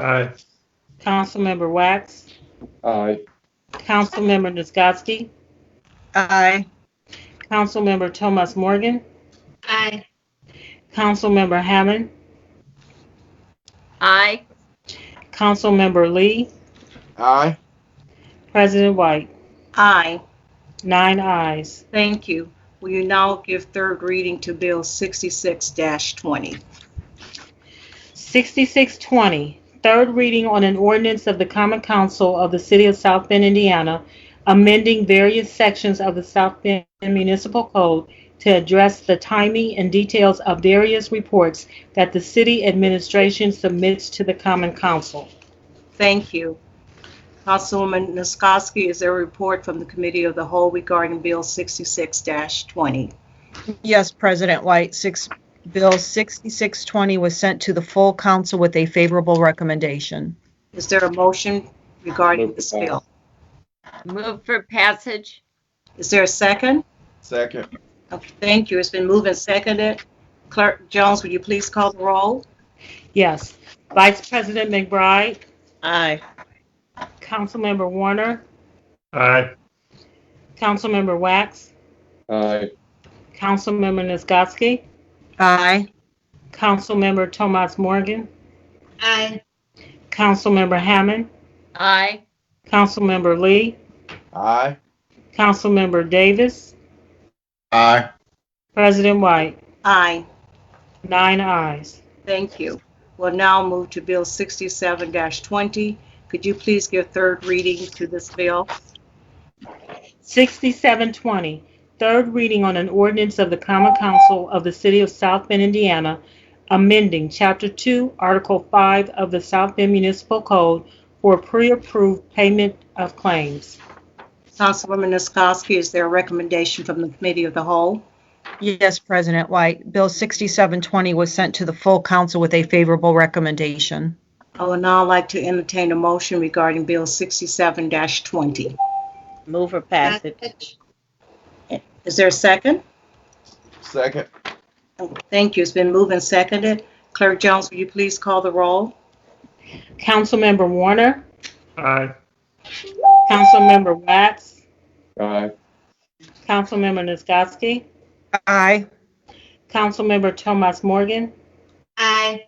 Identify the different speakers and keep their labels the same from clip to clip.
Speaker 1: Aye.
Speaker 2: Councilmember Wax,
Speaker 3: Aye.
Speaker 2: Councilmember Nisgowsky,
Speaker 4: Aye.
Speaker 2: Councilmember Thomas Morgan,
Speaker 5: Aye.
Speaker 2: Councilmember Hammond,
Speaker 5: Aye.
Speaker 2: Councilmember Lee,
Speaker 3: Aye.
Speaker 2: President White.
Speaker 4: Aye.
Speaker 2: Nine ayes.
Speaker 4: Thank you. Will you now give third reading to Bill 66-20?
Speaker 2: 6620, third reading on an ordinance of the Common Council of the City of South Bend, Indiana, amending various sections of the South Bend Municipal Code to address the timing and details of various reports that the city administration submits to the Common Council.
Speaker 4: Thank you. Councilwoman Niskoski, is there a report from the Committee of the Whole regarding Bill 66-20?
Speaker 6: Yes, President White, six, Bill 6620 was sent to the full council with a favorable recommendation.
Speaker 4: Is there a motion regarding
Speaker 3: Move
Speaker 4: this
Speaker 3: to pass.
Speaker 4: bill?
Speaker 5: Move for passage?
Speaker 4: Is there a second?
Speaker 3: Second.
Speaker 4: Okay, Thank you. It's been moved and seconded. Clerk Jones, will you please call the roll?
Speaker 2: Yes. Vice President McBride,
Speaker 4: Aye.
Speaker 2: Councilmember Warner,
Speaker 1: Aye.
Speaker 2: Councilmember Wax,
Speaker 3: Aye.
Speaker 2: Councilmember Nisgowsky,
Speaker 6: Aye.
Speaker 2: Councilmember Tomas Morgan,
Speaker 5: Aye.
Speaker 2: Councilmember Hammond,
Speaker 5: Aye.
Speaker 2: Councilmember Lee,
Speaker 3: Aye.
Speaker 2: Councilmember Davis,
Speaker 3: Aye.
Speaker 2: President White,
Speaker 4: Aye.
Speaker 2: nine ayes.
Speaker 4: Thank you. We'll now move to Bill 67-20. Could you please give third reading to this bill?
Speaker 2: 6720, third reading on an ordinance of the Common Council of the City of South Bend, Indiana, amending Chapter 2, Article 5 of the South Bend Municipal Code for pre-approved payment of claims.
Speaker 4: Councilwoman Niskoski, is there a recommendation from the Committee of the Whole?
Speaker 6: Yes, President White, Bill 6720 was sent to the full council with a favorable recommendation.
Speaker 4: I would now like to entertain a motion regarding Bill 67-20.
Speaker 7: Move for passage.
Speaker 4: Is there a second?
Speaker 3: Second.
Speaker 4: Thank you. It's been moved and seconded. Clerk Jones, will you please call the roll?
Speaker 2: Councilmember Warner,
Speaker 1: Aye.
Speaker 2: Councilmember Wax,
Speaker 3: Aye.
Speaker 2: Councilmember Nisgowsky,
Speaker 6: Aye.
Speaker 2: Councilmember Tomas Morgan,
Speaker 5: Aye.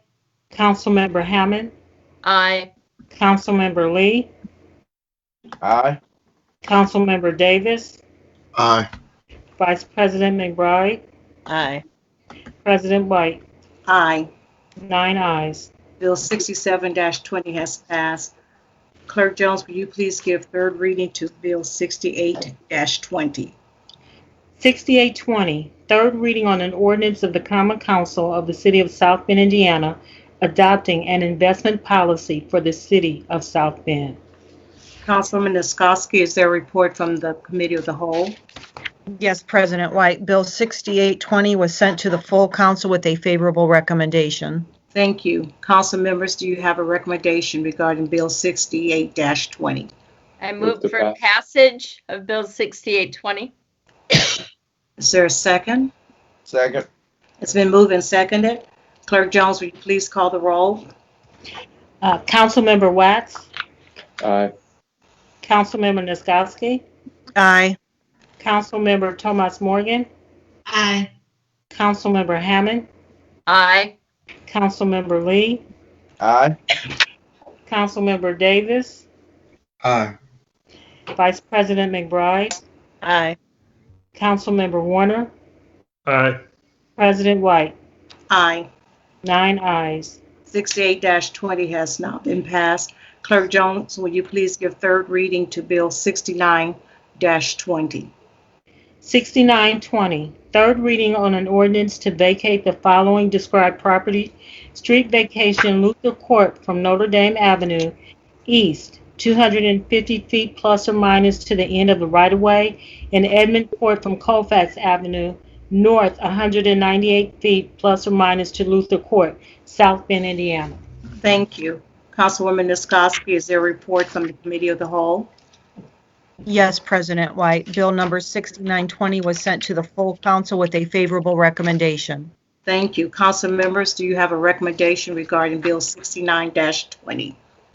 Speaker 2: Councilmember Hammond,
Speaker 5: Aye.
Speaker 2: Councilmember Lee,
Speaker 3: Aye.
Speaker 2: Councilmember Davis,
Speaker 3: Aye.
Speaker 2: Vice President McBride,
Speaker 7: Aye.
Speaker 2: President White,
Speaker 4: Aye.
Speaker 2: nine ayes.
Speaker 4: Bill 67-20 has passed. Clerk Jones, will you please give third reading to Bill 68-20?
Speaker 2: 6820, third reading on an ordinance of the Common Council of the City of South Bend, Indiana, adopting an investment policy for the City of South Bend.
Speaker 4: Councilwoman Niskoski, is there a report from the Committee of the Whole?
Speaker 6: Yes, President White, Bill 6820 was sent to the full council with a favorable recommendation.
Speaker 4: Thank you. Council members, do you have a recommendation regarding Bill 68-20?
Speaker 5: I
Speaker 3: Move
Speaker 5: move
Speaker 3: to
Speaker 5: for
Speaker 3: pass.
Speaker 5: passage of Bill 6820?
Speaker 4: Is there a second?
Speaker 3: Second.
Speaker 4: It's been moved and seconded. Clerk Jones, will you please call the roll?
Speaker 2: Uh, Councilmember Wax,
Speaker 3: Aye.
Speaker 2: Councilmember Nisgowsky,
Speaker 6: Aye.
Speaker 2: Councilmember Tomas Morgan,
Speaker 5: Aye.
Speaker 2: Councilmember Hammond,
Speaker 5: Aye.
Speaker 2: Councilmember Lee,
Speaker 3: Aye.
Speaker 2: Councilmember Davis,
Speaker 3: Aye.
Speaker 2: Vice President McBride,
Speaker 7: Aye.
Speaker 2: Councilmember Warner,
Speaker 1: Aye.
Speaker 2: President White,
Speaker 4: Aye.
Speaker 2: nine ayes.
Speaker 4: 68-20 has not been passed. Clerk Jones, will you please give third reading to Bill 69-20?
Speaker 2: 6920, third reading on an ordinance to vacate the following described property, street vacation Luther Court from Notre Dame Avenue East, 250 feet plus or minus to the end of the right-of-way, and Edmund Court from Colfax Avenue North, 198 feet plus or minus to Luther Court, South Bend, Indiana.
Speaker 4: Thank you. Councilwoman Niskoski, is there a report from the Committee of the Whole?
Speaker 6: Yes, President White, Bill number 6920 was sent to the full council with a favorable recommendation.
Speaker 4: Thank you. Council members, do you have a recommendation regarding Bill 69-20?